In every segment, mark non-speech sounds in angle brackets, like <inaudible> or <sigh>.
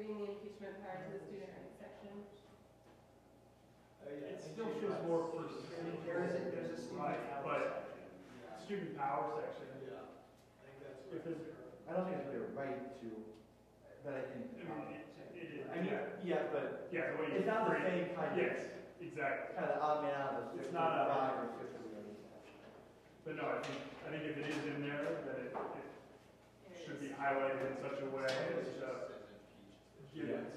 engagement prior to the student earnings section. It still shows more percentage. There is a, there's a student Right, hours but section. student power section, Yeah, I think that's If it's- right. I don't think it's really a right to, but I I think. mean, it, it is. I mean, yeah, but Yeah, the way you. it's not the frame- same kind of, Yes, exactly. kind of odd man out of. It's not a- Five or six of them. But no, I think, I think if it is in there, then it, it should be highlighted in such a way as to give it.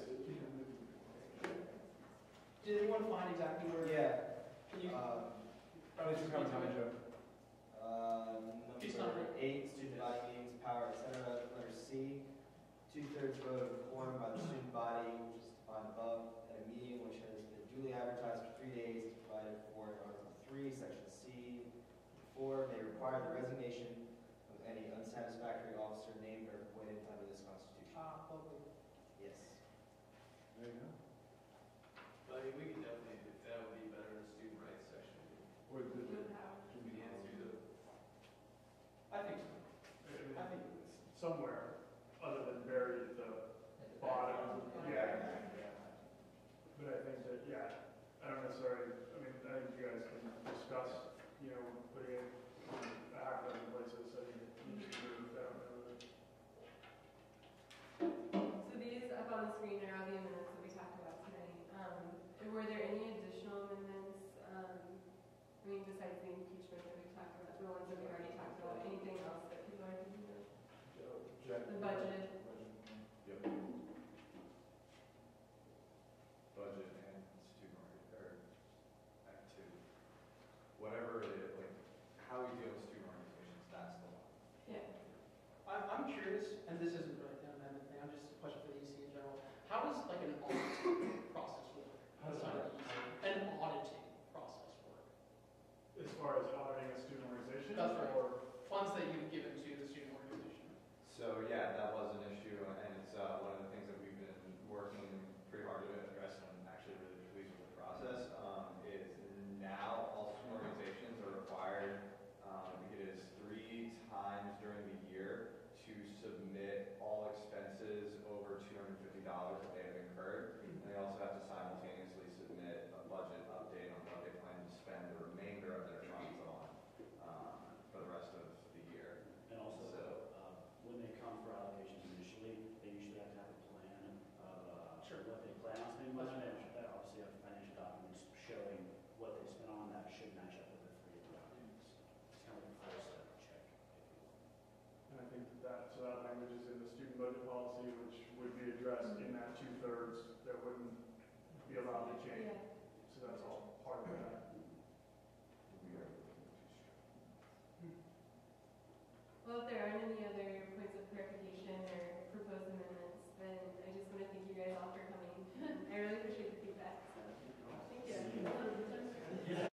Did anyone find exactly where? Yeah. Can you? um, Mr. Uh, Just number number- eight, student body meetings, power, et cetera, letter C. Two-thirds vote of a quorum by the student body, which is defined above, at a meeting which has been duly advertised for three days, provided for in Article three, Section C. Four, may require the resignation of any unsatisfactory officer named or appointed under this constitution. Ah, lovely. Yes. There you go. I mean, we can definitely, that would be better in the student rights section. Or the- Student power. We can answer I think, I I mean, think, Somewhere, other than buried at the bottom, yeah. But I think that, yeah, I don't necessarily, I mean, I think you guys can discuss, you know, putting it in a half dozen places, I think it needs to move, I don't know. So these up on the screen are all the amendments that we talked about tonight. Um, Were there any additional amendments, um, I mean, besides the impeachment that we talked about, the ones that we already talked about, anything else that people are thinking of? The budget, Yep. Budget and student, org- or, act two. Whatever it is, like, how we deal with student organizations, that's the law. yeah. I'm, I'm curious, and this isn't really an amendment thing, I'm just a question for the EC in general. How does like an audit process work? Sorry, An auditing process work? As far as auditing a student organization? That's right. or- Funds that you've given to the student organization? So, yeah, that was an issue, and it's, uh, one of the things that we've been working pretty hard to address, and I'm actually really pleased with the process, um, is now all student organizations are required, um, I think it is three times during the year to submit all expenses over two hundred fifty dollars that they have incurred, and they also have to simultaneously submit a budget update on what they plan to spend the remainder of their funds on, um, for the rest of the year. And also, So- uh, when they come for allocations initially, they usually have to have a plan of uh, Sure. what they plan on spending, plus financial, they obviously have financial documents showing what they spent on that should match up with the three documents. It's kind of a first step check, if you will. And I think that that, so that language is in the student budget policy, which would be addressed in that two-thirds that wouldn't be allowed to change. Yeah. So that's all part of that. We are looking to Well, if there aren't any other <laughs>